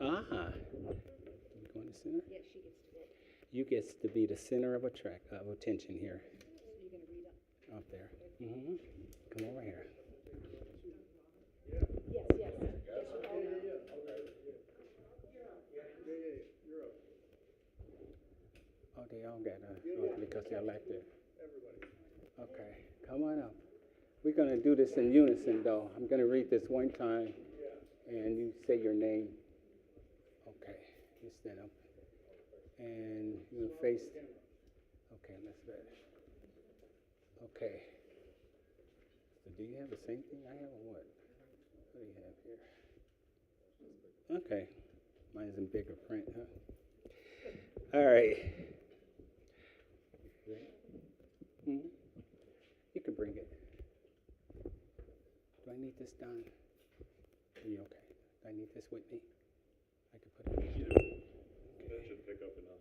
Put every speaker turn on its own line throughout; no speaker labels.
Ah, we going to center?
Yeah, she gets to it.
You gets to be the center of attract of attention here,
So you're gonna read up.
up there. hmm Come over here.
Yes, yes. Yes, you are now.
Oh, they all got uh, oh, because they're elected. Okay, come on up. We're gonna do this in unison, though. I'm gonna read this one time, and you say your name. Okay, you stand up, and you face. Okay, let's do it. Okay. So do you have the same thing I have, or what? What do you have here? Okay, mine's in bigger print, huh? All right. Mhm. You can bring it. Do I need this done? Are you okay? Do I need this with me? I can put it.
You do. That should pick up enough.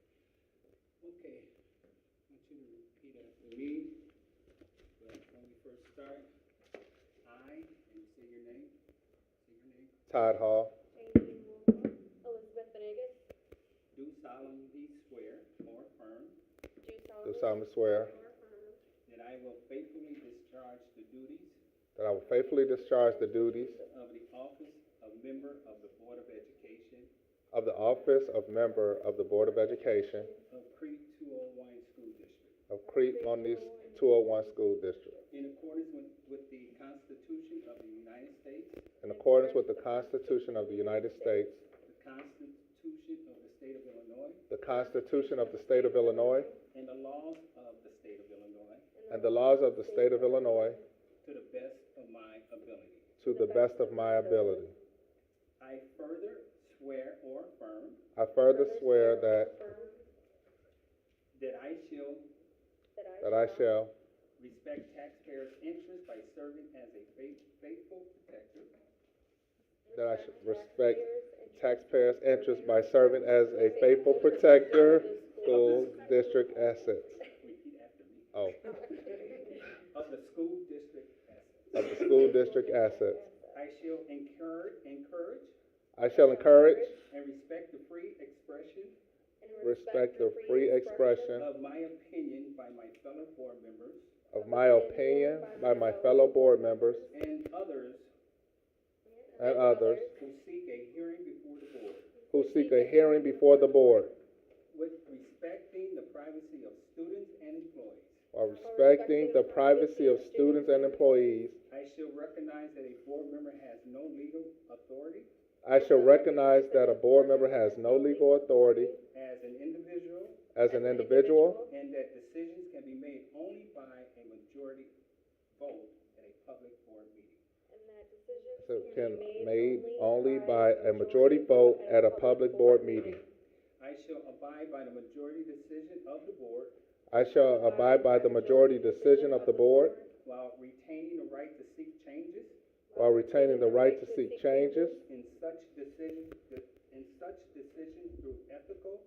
Okay, I want you to repeat after me. But when we first start, I, and you say your name, say your name,
Todd Hall,
Elizabeth Venegas,
do solemnly swear or affirm
do
do
solemnly
solemnly swear
that I will faithfully discharge the duties
that I will faithfully discharge the duties
of the office of member of the Board of Education
of the office of member of the Board of Education
of Creed 201 School District
of Crete Moniz 201 School District
in accordance with, with the Constitution of the United States,
in accordance with the Constitution of the United States,
the Constitution of the State of Illinois,
the Constitution of the State of Illinois,
and the laws of the State of Illinois
and the laws of the State of Illinois
to the best of my ability.
to the best of my ability.
I further swear or affirm
I further swear that,
that I shall
that I shall
respect taxpayers' interests by serving as a faith- faithful protector
that I should respect taxpayers' interests by serving as a faithful protector of school district assets.
repeat after me,
Oh,
of the school district assets.
of the school district assets.
I shall encourage, encourage
I shall encourage,
and respect the free expression
respect the free expression
of my opinion by my fellow board members
of my opinion by my fellow board members
and others
and others
who seek a hearing before the board
who seek a hearing before the board
with respecting the privacy of students and employees.
while respecting the privacy of students and employees.
I shall recognize that a board member has no legal authority
I shall recognize that a board member has no legal authority
as an individual
as an individual
and that decisions can be made only by a majority vote at a public board meeting.
And that decision
so can made only by a majority vote at a public board meeting.
I shall abide by the majority decision of the board
I shall abide by the majority decision of the board
while retaining the right to seek changes
while retaining the right to seek changes
in such decisions, in such decisions through ethical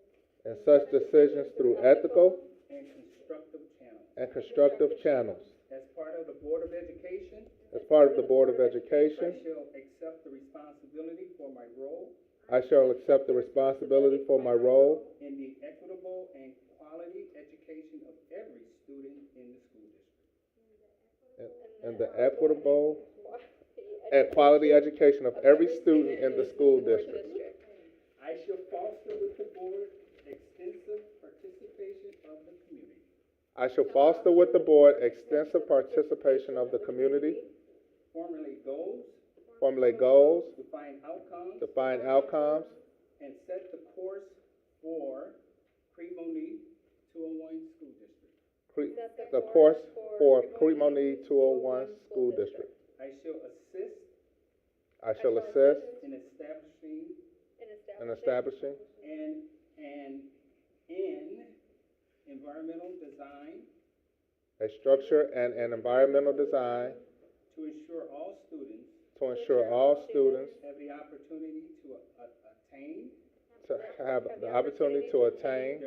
and such decisions through ethical
and constructive channels.
and constructive channels.
As part of the Board of Education,
As part of the Board of
I
Education,
shall accept the responsibility for my role
I shall accept the responsibility for my role
in the equitable and quality education of every student in the school district.
in the equitable and quality education of every student in the school district.
I shall foster with the board extensive participation of the community
I shall foster with the board extensive participation of the community,
formulate goals,
formulate goals,
define outcomes,
define outcomes,
and set the course for Cremoni 201 School District.
cre- the course for Cremoni 201 School District.
I shall assist
I shall assist
in establishing
in establishing
and, and in environmental design
a structure and an environmental design
to ensure all students
to ensure all students
have the opportunity to a- a- attain
to have the opportunity to attain